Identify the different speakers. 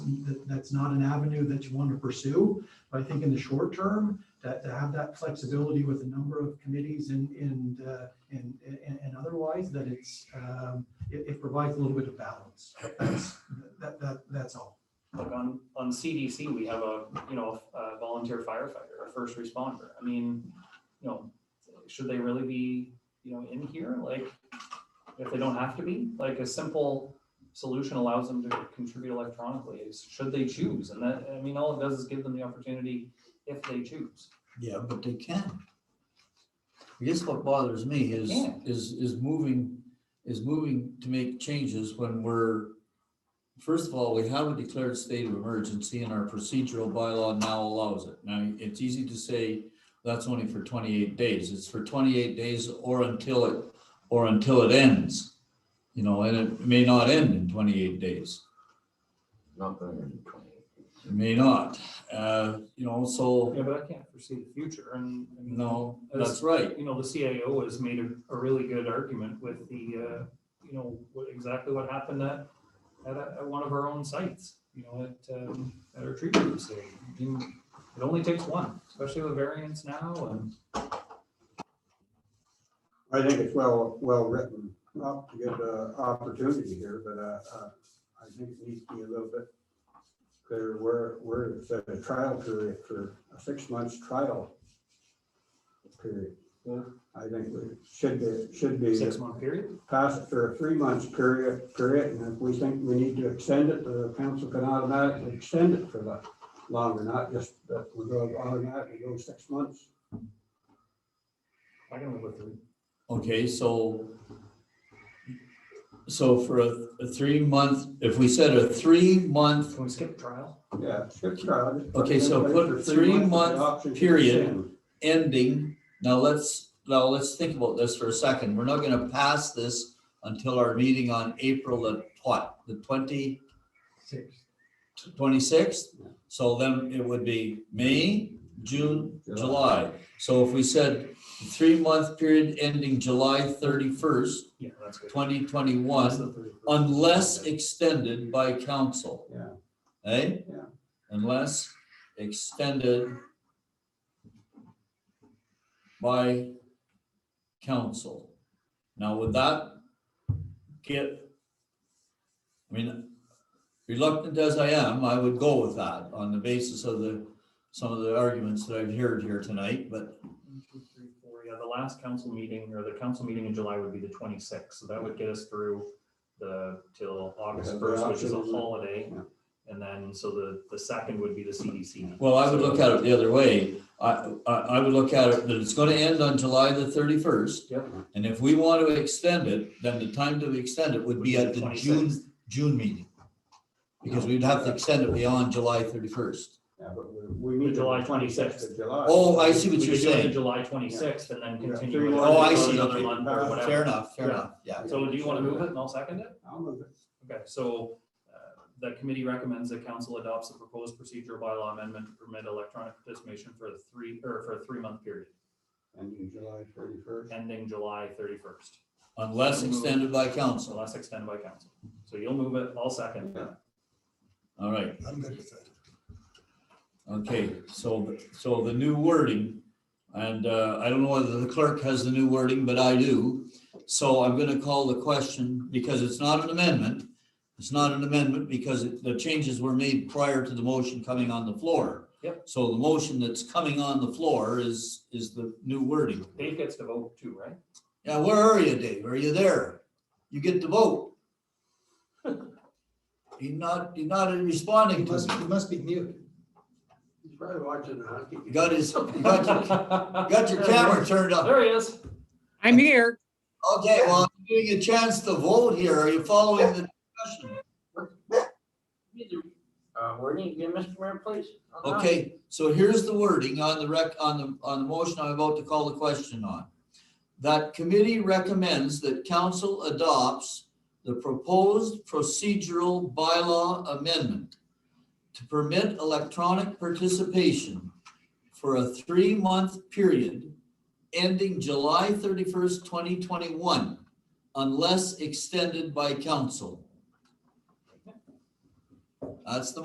Speaker 1: that's not an avenue that you want to pursue. But I think in the short term, that to have that flexibility with a number of committees and, and, uh, and, and, and otherwise, that it's, um, it, it provides a little bit of balance. That's, that, that, that's all.
Speaker 2: Like on, on CDC, we have a, you know, a volunteer firefighter, a first responder. I mean, you know, should they really be, you know, in here? Like, if they don't have to be, like a simple solution allows them to contribute electronically, is should they choose? And that, I mean, all it does is give them the opportunity if they choose.
Speaker 3: Yeah, but they can. I guess what bothers me is,
Speaker 2: Yeah.
Speaker 3: is, is moving, is moving to make changes when we're, first of all, we have a declared state of emergency and our procedural bylaw now allows it. Now, it's easy to say that's only for twenty-eight days. It's for twenty-eight days or until it, or until it ends. You know, and it may not end in twenty-eight days.
Speaker 4: Not going to be twenty.
Speaker 3: It may not. Uh, you know, so,
Speaker 2: Yeah, but I can't foresee the future and. I mean,
Speaker 3: no, that's right.
Speaker 2: you know, the CIO has made a, a really good argument with the, uh, you know, what, exactly what happened at, at, a- at one of our own sites, you know, at, um, at our treatment facility. I mean, It only takes one, especially with variants now and.
Speaker 5: I think it's well, well written, not to give the opportunity here, but uh, uh, I think it needs to be a little bit clear where, where it's a trial period for a six months trial period.
Speaker 2: Yeah.
Speaker 5: I think we should be, should be
Speaker 2: Six month period?
Speaker 5: passed for a three months period, period, and if we think we need to extend it, the council can automatically extend it for that longer, not just that we go automatically go six months.
Speaker 2: I can live with three.
Speaker 3: Okay, so. So for a, a three month, if we said a three month
Speaker 2: Can we skip trial?
Speaker 5: Yeah, skip trial. just put it
Speaker 3: Okay,
Speaker 5: in
Speaker 3: so
Speaker 5: place
Speaker 3: put
Speaker 5: for
Speaker 3: three
Speaker 5: months with the
Speaker 3: month
Speaker 5: option to
Speaker 3: period.
Speaker 5: extend.
Speaker 3: ending, now let's, now let's think about this for a second. We're not gonna pass this until our meeting on April the what, the twenty,
Speaker 1: Six.
Speaker 3: twenty-sixth? So then it would be May, June, July. So if we said three month period ending July thirty-first,
Speaker 2: Yeah, that's good.
Speaker 3: twenty
Speaker 2: That's
Speaker 3: twenty-one,
Speaker 2: the three.
Speaker 3: unless extended by council.
Speaker 5: Yeah,
Speaker 3: Eh?
Speaker 5: Yeah.
Speaker 3: Unless extended by council. Now, would that get? I mean, reluctant as I am, I would go with that on the basis of the, some of the arguments that I've heard here tonight, but
Speaker 2: One, two, three, four. Yeah, the last council meeting or the council meeting in July would be the twenty-sixth, so that would get us through the, till August
Speaker 5: Yeah, the
Speaker 2: first, which is a
Speaker 5: option is-
Speaker 2: holiday.
Speaker 5: yeah.
Speaker 2: And then, so the, the second would be the CDC.
Speaker 3: Well, I would look at it the other way. I, I, I would look at it that it's gonna end on July the thirty-first.
Speaker 2: Yep.
Speaker 3: And if we want to extend it, then the time to extend it would be at the June,
Speaker 2: 26th.
Speaker 3: June meeting. Because we'd have to extend it beyond July thirty-first.
Speaker 5: yeah, but we, we
Speaker 2: The
Speaker 5: need.
Speaker 2: July
Speaker 5: to-
Speaker 2: 26th.
Speaker 5: to July.
Speaker 3: Oh, I see
Speaker 2: We
Speaker 3: what
Speaker 2: could
Speaker 3: you're
Speaker 2: do it in
Speaker 3: saying.
Speaker 2: July twenty-sixth and then
Speaker 5: Yeah,
Speaker 2: continue.
Speaker 5: three
Speaker 2: it
Speaker 5: more
Speaker 3: Oh,
Speaker 2: for
Speaker 3: I see.
Speaker 2: Another
Speaker 3: Okay.
Speaker 2: month or
Speaker 3: Fair
Speaker 2: whatever.
Speaker 3: enough, fair
Speaker 2: Yeah.
Speaker 3: enough, yeah.
Speaker 2: So do you want to move it and I'll second it?
Speaker 5: I'll move it.
Speaker 2: Okay, so uh, the committee recommends that council adopts the proposed procedural bylaw amendment to permit electronic participation for a three, or for a three-month period,
Speaker 5: And in July thirty-first.
Speaker 2: ending July thirty-first.
Speaker 3: Unless extended by
Speaker 2: So
Speaker 3: council.
Speaker 2: less extended by council. So you'll move it, I'll second.
Speaker 3: All right,
Speaker 6: I'm good with that.
Speaker 3: okay, so, so the new wording. And uh, I don't know whether the clerk has the new wording, but I do. So I'm gonna call the question because it's not an amendment. It's not an amendment because it- the changes were made prior to the motion coming on the floor.
Speaker 2: Yep.
Speaker 3: So the motion that's coming on the floor is, is the new wording.
Speaker 2: Dave gets to vote too, right?
Speaker 3: Yeah, where are you, Dave? Are you there? You get to vote. He's not, he's not
Speaker 6: He
Speaker 3: responding to
Speaker 6: must,
Speaker 3: me.
Speaker 6: he must be mute.
Speaker 5: He's probably watching the hockey.
Speaker 3: You got his, you got your, you got your camera turned up.
Speaker 2: There he is.
Speaker 7: I'm here.
Speaker 3: Okay, well, I'm giving you a chance to vote here. Are you following the discussion?
Speaker 4: Uh, where do you get Mr. Mayor, please? I'm not.
Speaker 3: Okay, so here's the wording on the rec, on the, on the motion I'm about to call the question on. That committee recommends that council adopts the proposed procedural bylaw amendment to permit electronic participation for a three-month period ending July thirty-first, twenty twenty-one, unless extended by council. That's the